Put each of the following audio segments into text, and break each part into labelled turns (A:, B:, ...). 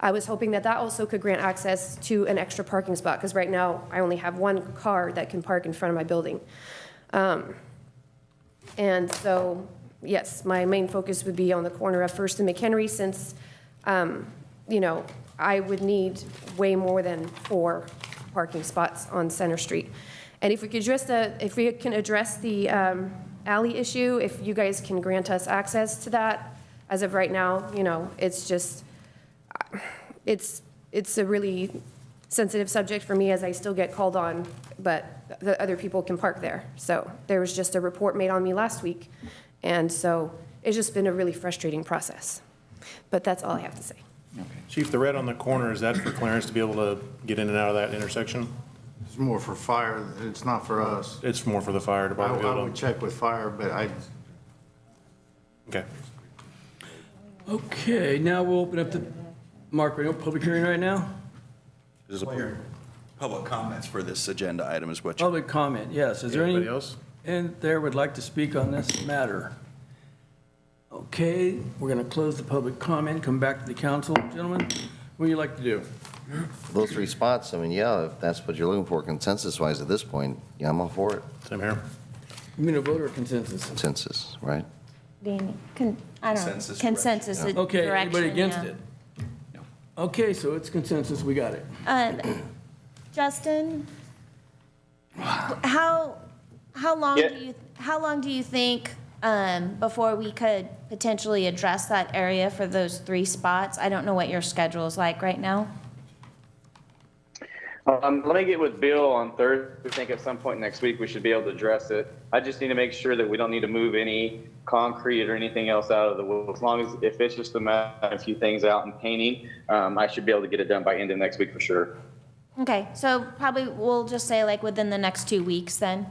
A: I was hoping that that also could grant access to an extra parking spot, because right now, I only have one car that can park in front of my building. Um, And so, yes, my main focus would be on the corner of First and McHenry, since, um, you know, I would need way more than four parking spots on Center Street. And if we could address the, if we can address the um, alley issue, if you guys can grant us access to that, as of right now, you know, it's just, it's, it's a really sensitive subject for me as I still get called on, but the other people can park there. So there was just a report made on me last week, and so it's just been a really frustrating process. But that's all I have to say.
B: Chief, the red on the corner, is that for Clarence to be able to get in and out of that intersection?
C: It's more for fire, it's not for us.
B: It's more for the fire
C: I
B: department. to
C: I
B: be able
C: would
B: to-
C: check with fire, but I,
B: Okay.
D: Okay, now we'll open up the, Mark, we do public hearing right now?
E: There's a pub- public comments for this agenda item is what you
D: Public comment, yes. Is there
B: Anybody
D: any,
B: else?
D: and there would like to speak on this matter? Okay, we're going to close the public comment, come back to the council. Gentlemen, what do you like to do?
F: Those three spots, I mean, yeah, if that's what you're looking for consensus-wise at this point, yeah, I'm all for it.
B: Same here.
D: You mean a voter consensus?
F: Consensus, right?
G: Danny, con, I don't know,
E: Consensus
G: consensus direction,
D: Okay, anybody against
G: yeah.
D: it? Okay, so it's consensus, we got it.
G: Uh, Justin, how, how long
H: Yeah.
G: do you, how long do you think, um, before we could potentially address that area for those three spots? I don't know what your schedule is like right now.
H: Um, let me get with Bill on Thursday. I think at some point next week we should be able to address it. I just need to make sure that we don't need to move any concrete or anything else out of the way. As long as, if it's just a matter of a few things out and painting, um, I should be able to get it done by end of next week for sure.
G: Okay, so probably we'll just say like within the next two weeks then?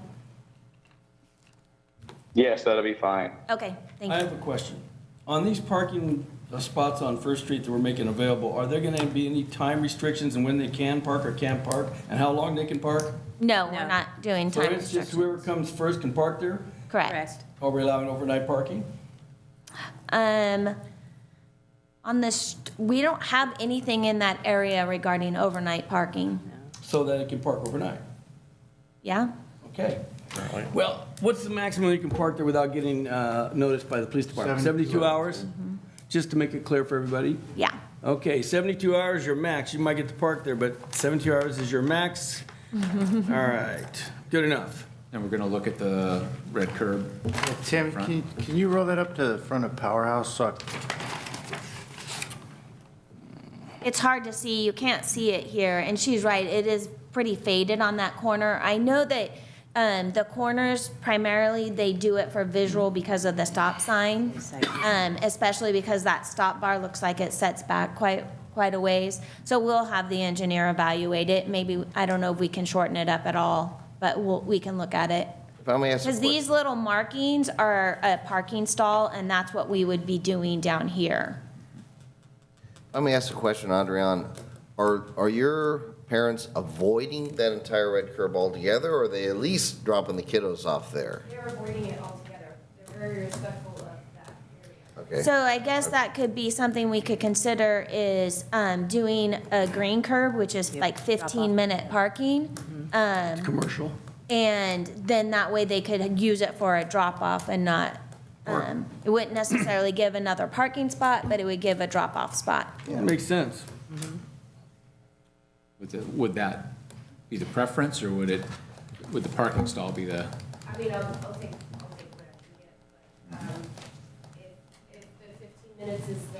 H: Yes, that'll be fine.
G: Okay, thank
D: I
G: you.
D: have a question. On these parking uh, spots on First Street that we're making available, are there going to be any time restrictions on when they can park or can't park, and how long they can park?
G: No, we're not doing
D: So
G: time
D: it's just
G: restrictions.
D: whoever comes first can park there?
G: Correct.
I: Correct.
D: Are we allowing overnight parking?
G: Um, on this, we don't have anything in that area regarding overnight parking,
D: So that it can park overnight?
G: yeah?
D: Okay. Well, what's the maximum you can park there without getting uh, noticed by the police department? 72
C: 72
D: hours? Just to make it clear for everybody?
G: Yeah,
D: Okay, 72 hours, your max. You might get to park there, but 72 hours is your max? All right, good enough.
J: And we're going to look at the red curb.
C: Tim, can, can you roll that up to the front of Powerhouse? So I-
G: it's hard to see, you can't see it here, and she's right, it is pretty faded on that corner. I know that, um, the corners primarily, they do it for visual because of the stop sign, um, especially because that stop bar looks like it sets back quite, quite a ways. So we'll have the engineer evaluate it, maybe, I don't know if we can shorten it up at all, but we'll, we can look at it.
F: If I may ask. a
G: Because these
F: question-
G: little markings are a parking stall, and that's what we would be doing down here.
F: Let me ask a question, Adrian. Are, are your parents avoiding that entire red curb altogether, or are they at least dropping the kiddos off there?
A: They're avoiding it altogether. They're very respectful of that area.
F: Okay.
G: So I guess that could be something we could consider is um, doing a green curb, which is like
I: drop off. Mm-hmm.
G: 15-minute parking. um,
D: Commercial?
G: And then that way they could use it for a drop-off and not, um, it wouldn't necessarily give another parking spot, but it would give a drop-off spot.
D: Makes sense.
J: Would the- Would that be the preference, or would it, would the parking stall be the,
A: I mean, I'll, I'll take, I'll take what I can get, but, um, if, if the fifteen minutes is the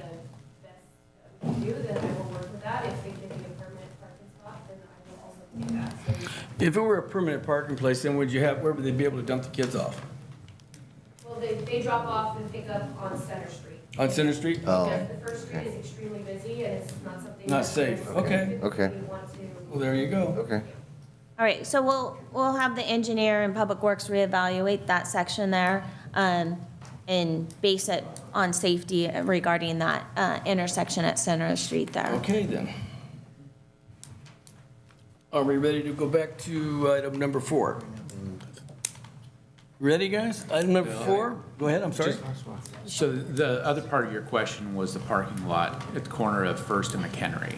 A: best that we can do, then I will work with that. If it can be a permanent parking spot, then I will also take that. So
D: If it were a permanent parking place, then would you have, where would they be able to dump the kids off?
A: Well, they, they drop off and pick up on Center Street.
D: On Center Street?
F: Oh.
A: Because the First Street is extremely busy and it's not something.
D: Not
A: that
D: safe.
A: we
D: Okay.
F: Okay.
A: typically want to-
D: Well, there you go.
F: Okay.
G: All right, so we'll, we'll have the engineer and Public Works reevaluate that section there um, and base it on safety regarding that uh, intersection at Center Street there.
D: Okay, then. Are we ready to go back to item number four? Ready, guys? Item number four, go ahead, I'm sorry.
H: So the other part of your question was the parking lot at the corner of First and McHenry.